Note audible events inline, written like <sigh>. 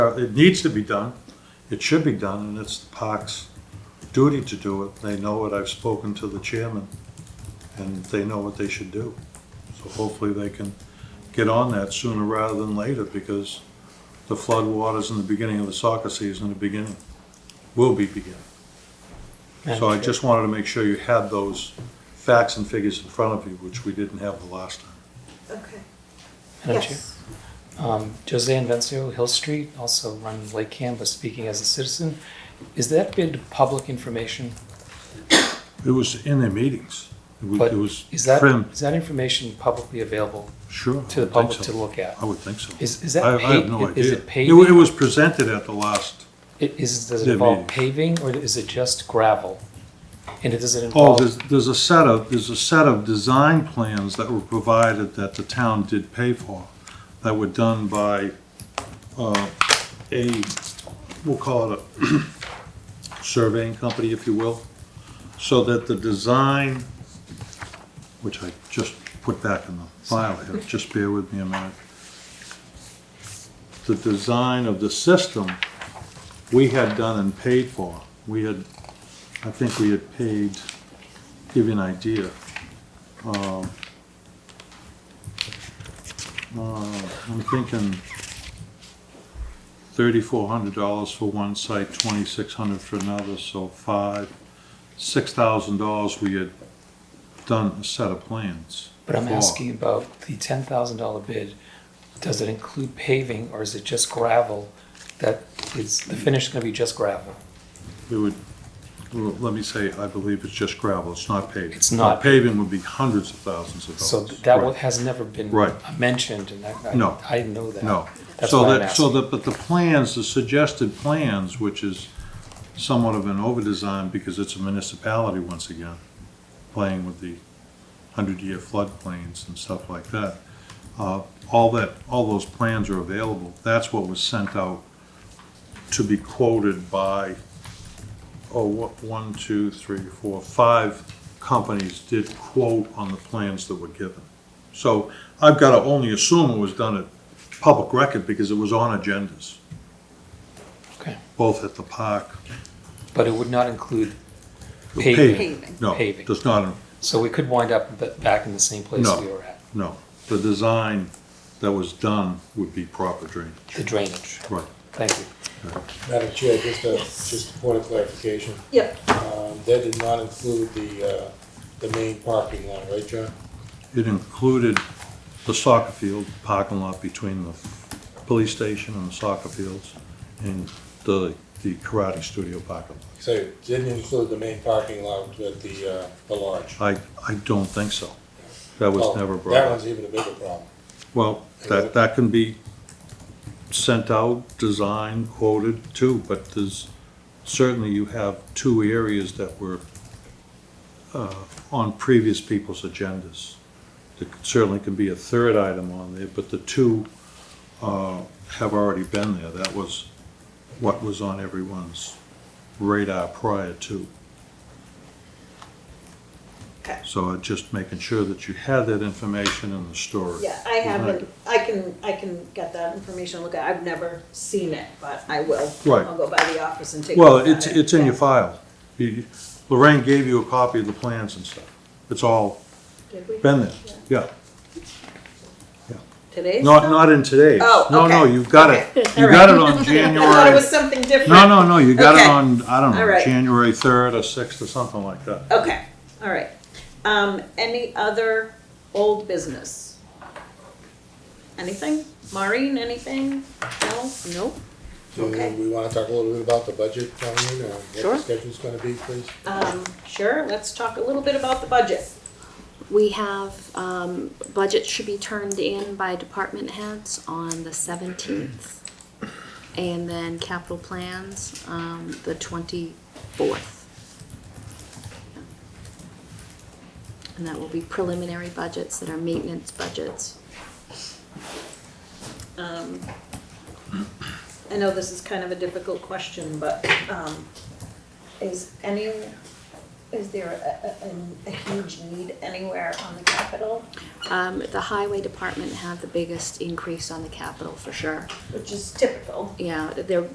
uh, it needs to be done, it should be done, and it's the park's duty to do it. They know it, I've spoken to the chairman, and they know what they should do. So hopefully they can get on that sooner rather than later, because the flood waters in the beginning of the soccer season, the beginning, will be beginning. So I just wanted to make sure you had those facts and figures in front of you, which we didn't have the last time. Okay. Madam Chair, Yes. um, Joseanne Vencio, Hill Street, also run Lakeham, but speaking as a citizen. Is that bid public information? It was in their meetings. It was- But It was Is that, trimmed, is that information publicly available sure. I to the would think public so. to look at? I would think so. Is, is I that I have no paved, idea. is it It wa- It paving? was presented at the last, I- Is, does it Yeah, involve maybe. paving or is it just gravel? And it does it oh, involve? there's, there's a set of, there's a set of design plans that were provided that the town did pay for, that were done by, uh, a, we'll call it a <clears throat> surveying company, if you will, so that the design, which I just put back in the file here, just bear with me a minute. The design of the system, we had done and paid for. We had, I think we had paid, give you an idea. um, uh, I'm thinking thirty-four hundred dollars for one site, twenty-six hundred for another, so five, six thousand dollars we had done a set of plans. But I'm for. asking about the ten thousand dollar bid. Does it include paving or is it just gravel? That is, the finish is gonna be just gravel? It would, well, let me say, I believe it's just gravel, it's not paved. It's not- Paving would be hundreds of thousands of dollars. So that Right. wa- has never been Right. mentioned, and I- No. I, I know that. No. That's So why I'm that, so asking. that, but the plans, the suggested plans, which is somewhat of an overdesign because it's a municipality once again, playing with the hundred-year floodplains and stuff like that. Uh, all that, all those plans are available. That's what was sent out to be quoted by, oh, what, one, two, three, four, five companies did quote on the plans that were given. So I've got to only assume it was done at public record because it was on agendas, Okay, both at the park. but it would not include the paving, No, Paving. does not, so we could wind up ba- back in the same place No. we were at, no. The design that was done would be proper drainage. the drainage. Right. Thank you. Madam Chair, just a, just a point of clarification. Yep, Um, That did not include the, uh, the main parking lot, right, John? It included the soccer field parking lot between the police station and the soccer fields and the, the karate studio parking lot. So it didn't include the main parking lot with the, uh, the lodge. I, I don't think so. That was Oh, never That brought up. one's even a bigger problem. Well, that, that can be sent out, designed, quoted too, but there's, certainly you have two areas that were uh, on previous people's agendas. There certainly can be a third item on there, but the two uh, have already been there. That was what was on everyone's radar prior to. Okay. So uh, just making sure that you had that information in the story. yeah, I haven't, I can, I can get that information, look, at it. I've never seen it, but I will. Right. I'll go by the office and take a Well, look it's, at it. it's in your Yeah. file. You- Lorraine gave you a copy of the plans and stuff. It's all Did we? been there, yeah. Today's? Not, not in today's. Oh, No, no, okay. you got it. Okay. You <laughs> All got right. it on I thought it January, was something different. no, no, no, you got it Okay. on, I don't All know, right. January 3rd or 6th or something like that. Okay, all right. Um, any other old business? Anything? Maureen, anything? No? Nope. Do Okay. we wanna talk a little bit about the budget coming in, or what Sure. the schedule's gonna be, please? Um, sure, let's talk a little bit about the budget. We have, um, budget should be turned in by department heads on the seventeenth. And then capital plans, um, the twenty-fourth. And that will be preliminary budgets that are maintenance budgets. Um, I know this is kind of a difficult question, but, um, is any Is there a, a, a huge need anywhere on the capital, Um, the highway department had the biggest increase on the capital for sure. which is typical? Yeah, they're